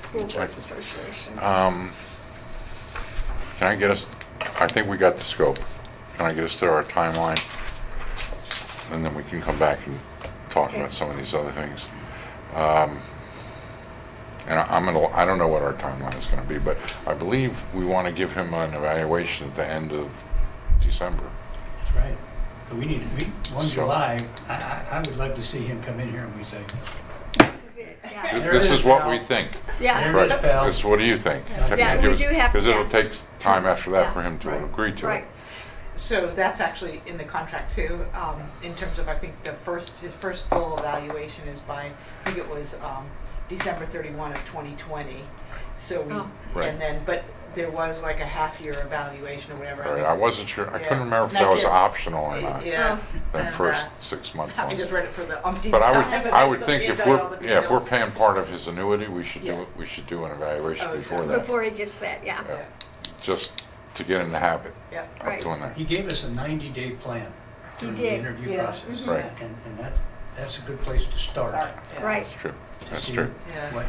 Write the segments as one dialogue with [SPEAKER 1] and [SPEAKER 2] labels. [SPEAKER 1] School Boards Association.
[SPEAKER 2] Um, Can I get us, I think we got the scope. Can I get us through our timeline? And then we can come back and talk
[SPEAKER 1] Okay.
[SPEAKER 2] about some of these other things. Um, And I- I'm gonna, I don't know what our timeline is gonna be, but I believe we want to give him an evaluation at the end of December.
[SPEAKER 3] That's right. But we need, we, one
[SPEAKER 2] So-
[SPEAKER 3] July, I, I, I would love to see him come in here and we say,
[SPEAKER 1] Yeah,
[SPEAKER 3] There
[SPEAKER 2] This
[SPEAKER 3] it
[SPEAKER 2] is
[SPEAKER 3] is,
[SPEAKER 2] what
[SPEAKER 3] pal.
[SPEAKER 2] we think.
[SPEAKER 1] Yes.
[SPEAKER 3] There it
[SPEAKER 2] Right,
[SPEAKER 3] is, pal.
[SPEAKER 2] this, what do you think?
[SPEAKER 3] Yeah, we
[SPEAKER 1] do have-
[SPEAKER 2] Because
[SPEAKER 1] yeah.
[SPEAKER 2] it'll take time after that for
[SPEAKER 1] Yeah.
[SPEAKER 2] him to
[SPEAKER 3] Right.
[SPEAKER 2] agree to it.
[SPEAKER 1] right.
[SPEAKER 4] So that's actually in the contract too, um, in terms of, I think the first, his first full evaluation is by, I think it was, um, December thirty-one of twenty twenty. So
[SPEAKER 1] Oh.
[SPEAKER 4] we,
[SPEAKER 2] Right.
[SPEAKER 4] and then, but there was like a half-year evaluation or whatever.
[SPEAKER 2] All right, I wasn't sure, I couldn't
[SPEAKER 4] Yeah.
[SPEAKER 2] remember if
[SPEAKER 4] Not
[SPEAKER 2] that was
[SPEAKER 4] yet.
[SPEAKER 2] optional or not.
[SPEAKER 4] Yeah.
[SPEAKER 1] Oh.
[SPEAKER 2] that
[SPEAKER 4] And,
[SPEAKER 2] first
[SPEAKER 4] uh,
[SPEAKER 2] six-month
[SPEAKER 4] I just
[SPEAKER 2] one.
[SPEAKER 4] read it for the umpteenth
[SPEAKER 2] But I would,
[SPEAKER 4] time, but
[SPEAKER 2] I would
[SPEAKER 4] still
[SPEAKER 2] think
[SPEAKER 4] can't
[SPEAKER 2] if
[SPEAKER 4] tell you all
[SPEAKER 2] we're,
[SPEAKER 4] the
[SPEAKER 2] yeah, if we're
[SPEAKER 4] details.
[SPEAKER 2] paying part of his annuity, we should do,
[SPEAKER 4] Yeah.
[SPEAKER 2] we should do an evaluation
[SPEAKER 4] Oh,
[SPEAKER 2] before
[SPEAKER 4] exactly.
[SPEAKER 2] that.
[SPEAKER 1] Before he gets that, yeah.
[SPEAKER 2] Yeah. Just to get in the habit
[SPEAKER 4] Yeah,
[SPEAKER 2] of
[SPEAKER 1] Right.
[SPEAKER 2] doing that.
[SPEAKER 3] he gave us a ninety-day plan
[SPEAKER 1] He
[SPEAKER 3] during the
[SPEAKER 1] did, Mm-hmm.
[SPEAKER 3] interview
[SPEAKER 4] yeah.
[SPEAKER 3] process.
[SPEAKER 2] Mhm. Right.
[SPEAKER 3] And, and that, that's a good place to start.
[SPEAKER 4] Sorry, yeah.
[SPEAKER 1] Right.
[SPEAKER 2] That's true,
[SPEAKER 3] to
[SPEAKER 2] that's
[SPEAKER 3] see
[SPEAKER 2] true.
[SPEAKER 4] Yeah.
[SPEAKER 3] What,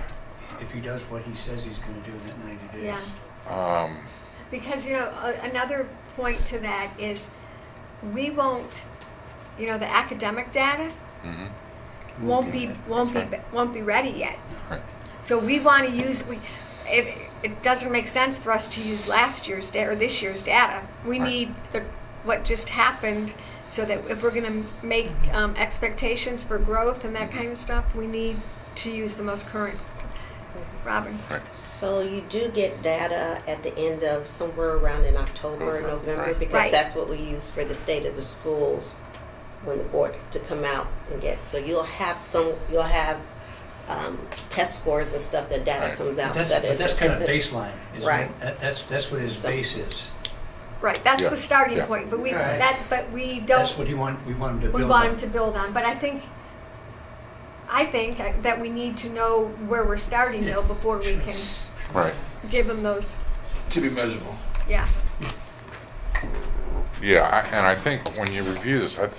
[SPEAKER 3] if he does what he says he's gonna do in that ninety
[SPEAKER 1] Yeah.
[SPEAKER 3] days.
[SPEAKER 2] Um,
[SPEAKER 1] Because, you know, a- another point to that is we won't, you know, the academic data
[SPEAKER 2] mhm,
[SPEAKER 1] won't be, won't be,
[SPEAKER 2] That's
[SPEAKER 1] won't be ready yet.
[SPEAKER 2] right.
[SPEAKER 1] So we want to use, we, it, it doesn't make sense for us to use last year's data or this year's data. We
[SPEAKER 2] Right.
[SPEAKER 1] need the, what just happened so that if we're going to make
[SPEAKER 2] Mm-hmm.
[SPEAKER 1] um, expectations for growth and that kind of stuff, we need to use the most current. Robin?
[SPEAKER 5] So you do get data at the end of somewhere around in October,
[SPEAKER 3] Mm-hmm.
[SPEAKER 2] October,
[SPEAKER 5] November,
[SPEAKER 2] right.
[SPEAKER 1] Right.
[SPEAKER 5] because that's what we use for the state of the schools when the board to come out and get. So you'll have some, you'll have um, test scores and stuff. That data
[SPEAKER 2] Right.
[SPEAKER 5] comes
[SPEAKER 3] But
[SPEAKER 5] out.
[SPEAKER 3] that's,
[SPEAKER 5] that
[SPEAKER 3] but
[SPEAKER 5] it-
[SPEAKER 3] that's kind of
[SPEAKER 5] it-
[SPEAKER 3] baseline, isn't it?
[SPEAKER 5] Right.
[SPEAKER 3] That, that's, that's what his
[SPEAKER 5] So-
[SPEAKER 3] base is.
[SPEAKER 1] Right, that's
[SPEAKER 2] Yeah,
[SPEAKER 1] the starting
[SPEAKER 2] yeah.
[SPEAKER 1] point, but we,
[SPEAKER 3] Right.
[SPEAKER 1] that, but we don't.
[SPEAKER 3] That's what he want, we want him to build
[SPEAKER 1] we
[SPEAKER 3] on.
[SPEAKER 1] want him to build on. But I think, I think I- that we need to know where we're starting though before we can
[SPEAKER 2] Right,
[SPEAKER 1] give him those,
[SPEAKER 6] To be measurable.
[SPEAKER 1] yeah.
[SPEAKER 2] yeah, I- and I think when you review this, I, th-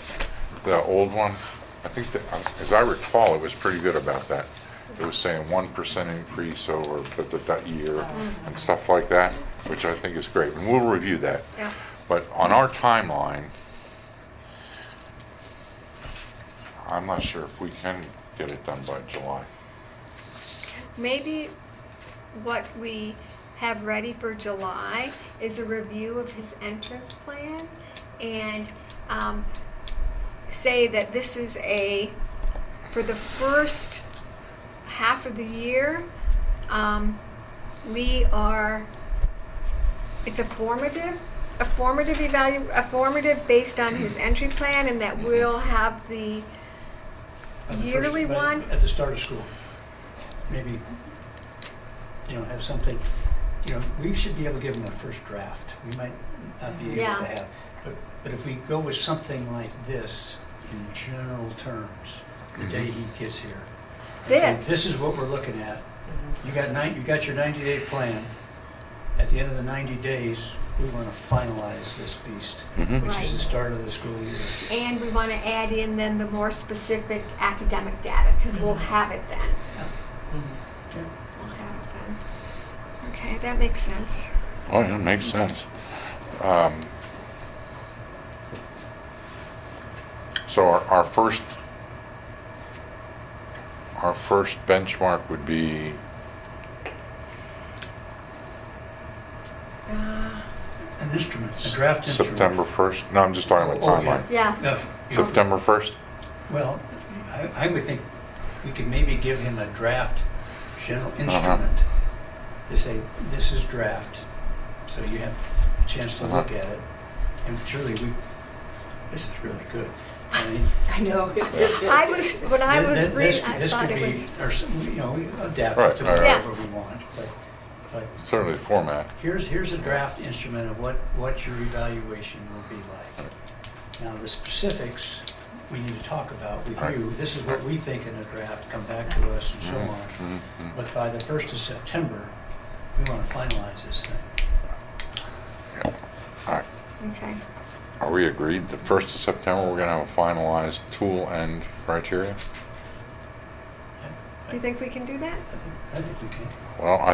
[SPEAKER 2] the old one, I think that, as I recall, it was pretty good about that. It was saying one percent increase over that, that- that year and stuff like that, which I think is great. And we'll review that.
[SPEAKER 1] Yeah.
[SPEAKER 2] But on our timeline, I'm not sure if we can get it done by July.
[SPEAKER 1] Maybe what we have ready for July is a review of his entrance plan and um, say that this is a, for the first half of the year, um, we are, it's a formative, a formative evalu, a formative based on his entry plan and that we'll have the,
[SPEAKER 3] on the first-
[SPEAKER 1] yearly
[SPEAKER 3] but
[SPEAKER 1] one?
[SPEAKER 3] At the start of school. Maybe, you know, have something, you know, we should be able to give them a first draft. We might not be able to
[SPEAKER 1] Yeah.
[SPEAKER 3] have. But, but if we go with something like this in general terms,
[SPEAKER 2] Mm-hmm.
[SPEAKER 3] the day he gets here. and say,
[SPEAKER 1] This.
[SPEAKER 3] This is what we're looking at.
[SPEAKER 1] Mm-hmm.
[SPEAKER 3] You got nine, you got your ninety day plan. At the end of the ninety days, we want to finalize this beast,
[SPEAKER 2] Mhm.
[SPEAKER 3] which is
[SPEAKER 1] Right.
[SPEAKER 3] the start of the school year.
[SPEAKER 1] And we want to add in then the more specific academic data, because we'll have it then.
[SPEAKER 3] Yeah.
[SPEAKER 1] We'll have it then. Okay, that makes sense.
[SPEAKER 2] Oh, yeah, makes sense. Um, So our, our first, our first benchmark would be,
[SPEAKER 1] Uh,
[SPEAKER 3] An instrument, a draft instrument.
[SPEAKER 2] September 1st? No, I'm just talking about
[SPEAKER 3] Oh, yeah.
[SPEAKER 2] timeline.
[SPEAKER 1] Yeah,
[SPEAKER 3] No, you-
[SPEAKER 2] September 1st?
[SPEAKER 3] Well, I, I would think we could maybe give him a draft general
[SPEAKER 2] Uh-huh.
[SPEAKER 3] instrument to say, this is draft, so you have a chance to look
[SPEAKER 2] Uh-huh.
[SPEAKER 3] at it. And surely we, this is really good. I mean,
[SPEAKER 4] I know.
[SPEAKER 1] I was, when I
[SPEAKER 3] thi-
[SPEAKER 1] was
[SPEAKER 3] thi- this-
[SPEAKER 1] reading, I
[SPEAKER 3] This
[SPEAKER 1] thought
[SPEAKER 3] could
[SPEAKER 1] it
[SPEAKER 3] be,
[SPEAKER 1] was,
[SPEAKER 3] or, some- you know, we adapt
[SPEAKER 2] Right,
[SPEAKER 3] it to
[SPEAKER 2] right,
[SPEAKER 1] right.
[SPEAKER 3] whatever we want, but, but
[SPEAKER 2] Certainly format.
[SPEAKER 3] Here's, here's a draft instrument of what, what your evaluation will be like. Now, the specifics, we need to talk about with
[SPEAKER 2] Right.
[SPEAKER 3] you. This is what we think in a draft, come back to us and so
[SPEAKER 2] Mhm,
[SPEAKER 3] on.
[SPEAKER 2] mhm, mhm.
[SPEAKER 3] But by the first of September, we want to finalize this thing.
[SPEAKER 2] All right.
[SPEAKER 1] okay.
[SPEAKER 2] Are we agreed that 1st of September, we're going to have a finalized tool and criteria?
[SPEAKER 3] I- I
[SPEAKER 7] You think we can do that?
[SPEAKER 1] I think, I think we can.
[SPEAKER 3] Well, I